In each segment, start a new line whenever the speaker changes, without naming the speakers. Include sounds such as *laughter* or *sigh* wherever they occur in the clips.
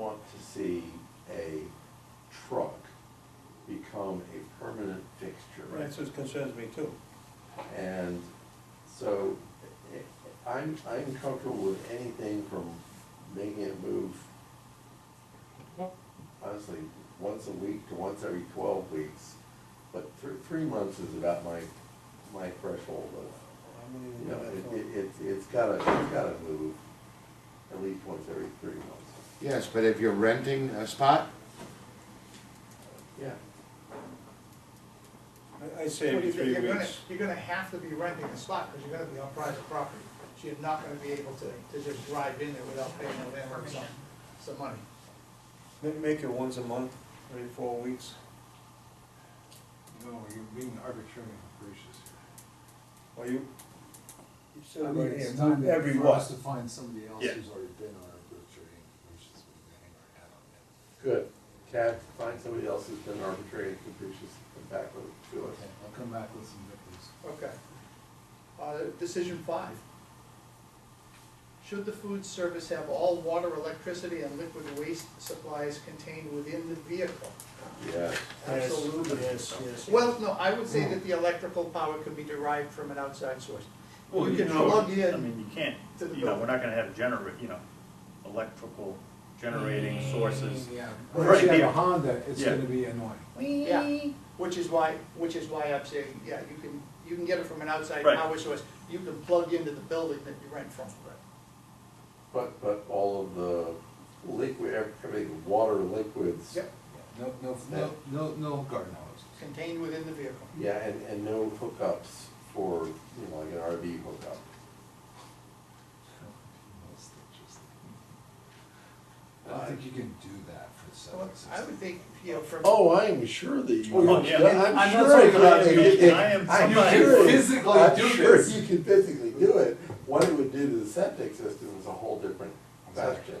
to see a truck become a permanent fixture.
Right, so it concerns me too.
And so eh, I'm, I'm comfortable with anything from making it move, honestly, once a week to once every twelve weeks. But three, three months is about my, my threshold of,
I'm gonna
you
even
know,
go that
it,
far.
it, it's- it's gotta, it's gotta move at least once every three months.
Yes, but if you're renting a spot,
Yeah.
I- I say every
Well, you're-
three
you're gonna-
weeks.
You're gonna have to be renting a spot, because you're gonna be on private property, so you're not gonna be able to, to just drive in there without paying the landlord some, some money.
Ma- Make it once a month, every four weeks.
No, you're being arbitrary and gracious.
Or you, you said
I
it
mean,
right
it's
here,
time
every
for us to
what?
find somebody else
Yeah.
who's already been on our group training, which is what we hang our hat on now.
Good. Cat, find somebody else who's been arbitrary and capricious and back with it to us.
Okay, I'll come back with some victories.
Okay. Uh, decision five. Should the food service have all water, electricity, and liquid waste supplies contained within the vehicle?
Yeah.
Yes,
Absolutely.
Yes, yes.
Well, no, I would say that the electrical power could be derived from an outside source.
Well,
You
you
can
know,
plug
I
in,
mean, you can't,
to the
you know,
building.
we're not gonna have generate, you know, electrical generating sources.
Yeah.
Right
Unless you have
here.
a Honda, it's
Yeah.
gonna be annoying.
yeah, which is why, which is why I'm saying, yeah, you can, you can get it from an outside
Right.
power source. You can plug into the building that you rent from.
But, but all of the liquid, everything, water liquids.
Yep,
No, no, no, no, no garden hose.
contained within the vehicle.
Yeah, and, and no hookups for, you know, like an RV hookup.
I don't think you can do that for seven
Well,
sixty.
I would think, you know, from.
Oh, I'm sure that you.
Oh, yeah.
I'm
I'm
sure
not
I
talking about
could-
you.
it-
I am
I'm
somebody
sure
who-
it-
Physically
I'm
do
sure
this.
You can physically do it. What it would do to the septic system is a whole different question.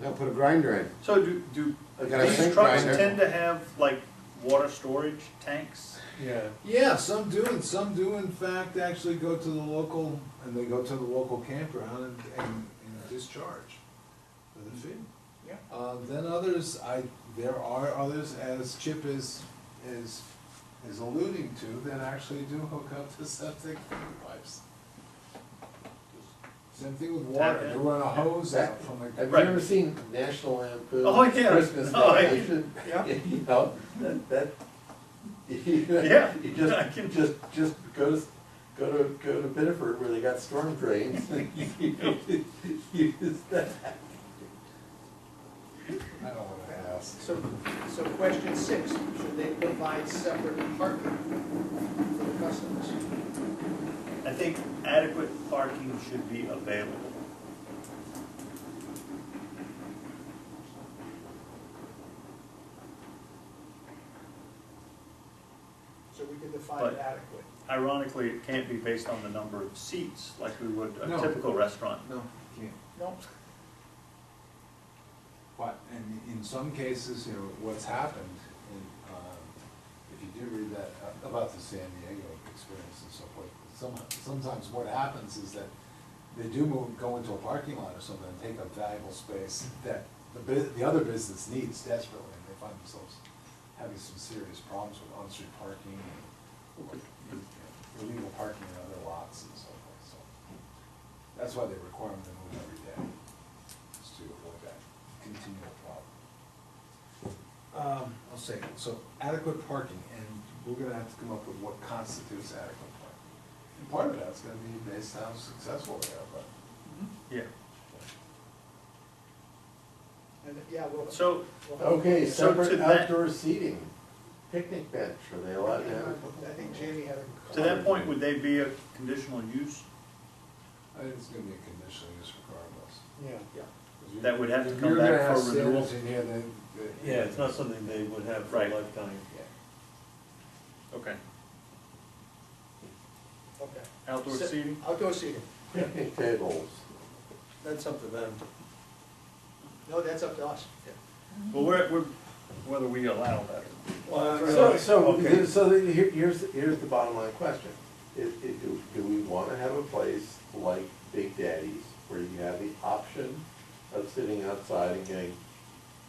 they'll put a grinder in.
So do, do
Like on a
these
sink
trucks
grinder.
tend to have like water storage tanks?
Yeah.
Yeah, some do, and some do in fact actually go to the local, and they go to the local campground and, and and discharge for the fee.
Yeah.
Uh, then others, I, there are others, as Chip is, is, is alluding to, that actually do hook up to septic pipes. Same thing with water,
Tap
they
in.
run a hose out from a.
Have you
Right.
ever seen National Lampoon?
Oh, yeah.
Christmas
Oh, yeah.
Vacation?
Yeah.
*laughs* You know, that, that. *laughs*
Yeah,
You
I
just,
can-
just, just go to, go to, go to Biddeford where they got storm
*laughs*
drains. *laughs* Use that.
I don't wanna ask.
So, so question six, should they provide separate parking for the customers?
I think adequate parking should be available.
So we could define
But-
it adequately.
Ironically, it can't be based on the number of seats like we would a
No.
typical restaurant.
No, you can't.
No,
But, and in some cases, you know, what's happened, in, um, if you do read that, uh, about the San Diego experience and so forth, some, sometimes what happens is that they do move, go into a parking lot or something and take up valuable space that the bu- the other business needs desperately, and they find themselves having some serious problems with on-street parking and you know, illegal parking in other lots and so forth, so. That's why they require them to move every day, is to avoid that continual problem. Um, I'll say, so adequate parking, and we're gonna have to come up with what constitutes adequate parking. And part of that's gonna be based on how successful they are, but.
Yeah.
and, yeah, well.
So,
we'll have-
Okay,
So to
separate
that-
outdoor seating, picnic bench, are they allowed to have?
I think Jamie had a.
to that point, would they be a conditional use
I think it's gonna be a conditional use regardless.
Yeah.
that would have to come back for renewal?
Yeah, it's not something they would have for a
Right.
lifetime.
Okay.
Okay.
Outdoor
Se-
seating?
Outdoor seating.
Picnic tables.
That's up to them.
No, that's up to us.
Well, we're, we're, whether we allow that or not.
So, so,
Okay.
so then here, here's, here's the bottom line question. Is, is, do, do we wanna have a place like Big Daddy's where you have the option of sitting outside and getting